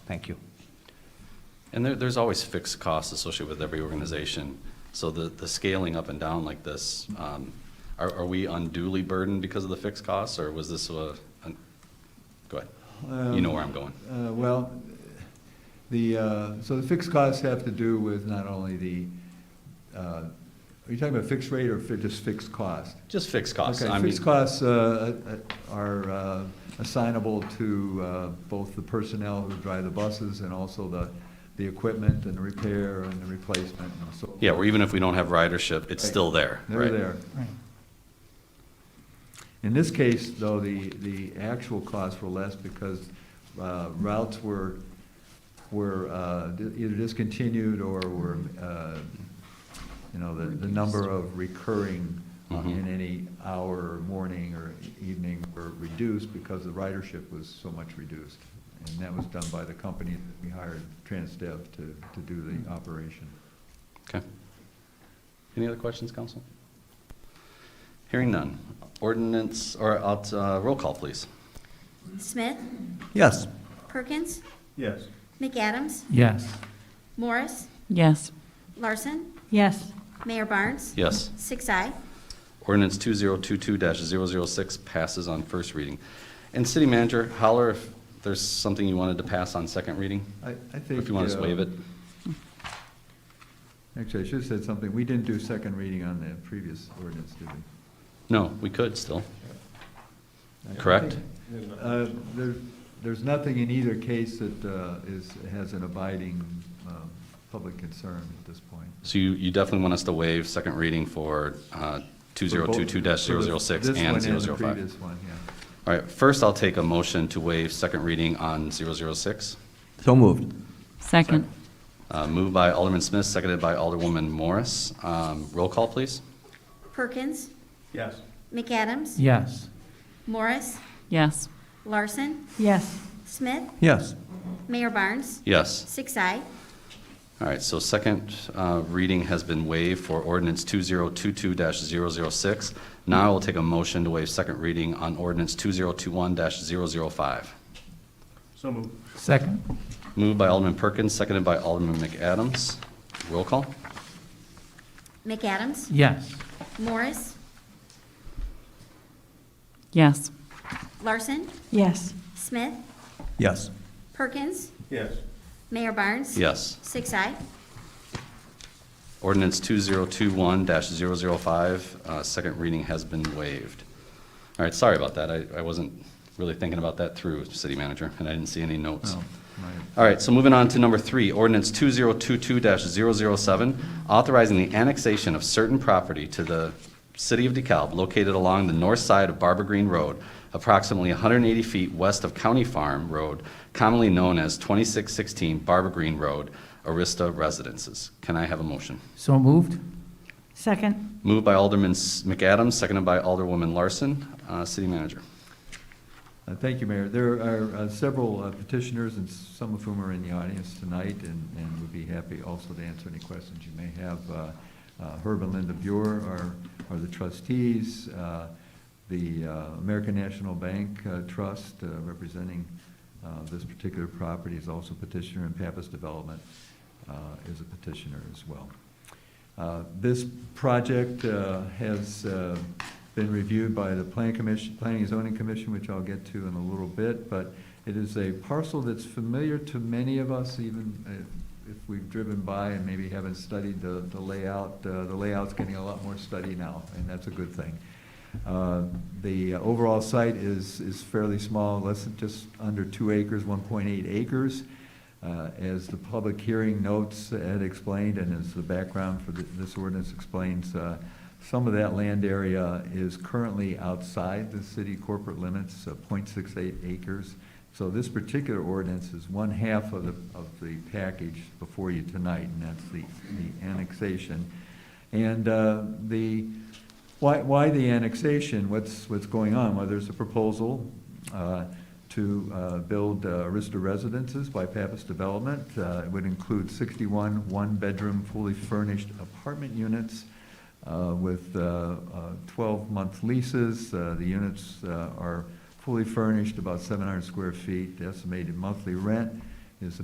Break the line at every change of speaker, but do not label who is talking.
Thank you.
And there, there's always fixed costs associated with every organization. So the, the scaling up and down like this, um, are, are we unduly burdened because of the fixed costs, or was this a, an- go ahead. You know where I'm going.
Uh, Well, the, uh, so the fixed costs have to do with not only the, uh, are you talking about fixed rate or fi- just fixed cost?
Just fixed costs. I
Okay,
mean,
fixed costs uh, uh, are uh, assignable to uh, both the personnel who drive the buses and also the, the equipment and the repair and the replacement and so.
Yeah, or even if we don't have ridership, it's still there,
They're
right?
there. In this case, though, the, the actual costs were less because uh, routes were, were uh, di- either discontinued or were, uh, you know, the, the number of recurring uh,
Mhm.
in any hour, or morning or evening were reduced because the ridership was so much reduced. And that was done by the company that we hired, Transdev, to, to do the operation.
Okay. Any other questions, council? Hearing none. Ordinance, or, out, uh, roll call, please.
Smith,
Yes.
Perkins,
Yes.
McAdams,
Yes.
Morris,
Yes.
Larson,
Yes.
Mayor Barnes.
Yes.
Six I.
Ordinance 2022-006 passes on first reading. And City Manager, holler if there's something you wanted to pass on second reading?
I, I
or
think.
If you want us to
uh,
waive it?
Actually, I should have said something. We didn't do second reading on the previous ordinance, did we?
No, we could still.
I don't
Correct.
think- uh, There, there's nothing in either case that uh, is, has an abiding um, public concern at this point.
So you, you definitely want us to waive second reading for uh,
For both- for
2022-006
the-
and
This one and the
005?
previous one, yeah.
All right, first I'll take a motion to waive second reading on 006.
So moved.
Second.
Uh, Moved by Alderman Smith, seconded by Alderwoman Morris. Um, Roll call, please.
Perkins,
Yes.
McAdams.
Yes.
Morris,
Yes.
Larson,
Yes.
Smith,
Yes.
Mayor Barnes.
Yes.
Six I.
All right, so second uh, reading has been waived for ordinance 2022-006. Now I will take a motion to waive second reading on ordinance 2021-005.
So moved.
Second?
Moved by Alderman Perkins, seconded by Alderman McAdams. Roll call?
McAdams,
Yes.
Morris,
Yes.
Larson,
Yes.
Smith,
Yes.
Perkins,
Yes.
Mayor Barnes.
Yes.
Six I.
Ordinance 2021-005, uh, second reading has been waived. All right, sorry about that. I I wasn't really thinking about that through, City Manager, and I didn't see any notes.
Well, my-
All right, so moving on to number three, ordinance 2022-007, authorizing the annexation of certain property to the city of DeKalb located along the north side of Barber Green Road, approximately 180 feet west of County Farm Road, commonly known as 2616 Barber Green Road, Arista Residences. Can I have a motion?
So moved?
Second.
Moved by Alderman S- McAdams, seconded by Alderwoman Larson. Uh, City Manager.
Uh, Thank you, Mayor. There are uh, several uh, petitioners, and some of whom are in the audience tonight, and, and would be happy also to answer any questions you may have. Uh, uh, Herb and Linda Buer are, are the trustees, uh, the uh, American National Bank uh, Trust uh, representing uh, this particular property is also petitioner, and Pappas Development uh, is a petitioner as well. Uh, This project uh, has uh, been reviewed by the Plan Commission, Planning and Zoning Commission, which I'll get to in a little bit, but it is a parcel that's familiar to many of us, even uh, if we've driven by and maybe haven't studied the the layout. Uh, The layout's getting a lot more study now, and that's a good thing. Uh, The overall site is, is fairly small, less than just under two acres, 1.8 acres. Uh, As the public hearing notes had explained, and as the background for th- this ordinance explains, uh, some of that land area is currently outside the city corporate limits, uh, .68 acres. So this particular ordinance is one half of the, of the package before you tonight, and that's the the annexation. And uh, the, why, why the annexation? What's, what's going on? Well, there's a proposal uh, to uh, build uh, Arista residences by Pappas Development. Uh, It would include 61 one-bedroom, fully furnished apartment units uh, with uh, uh, 12-month leases. Uh, The units uh, are fully furnished, about 700 square feet, The estimated monthly rent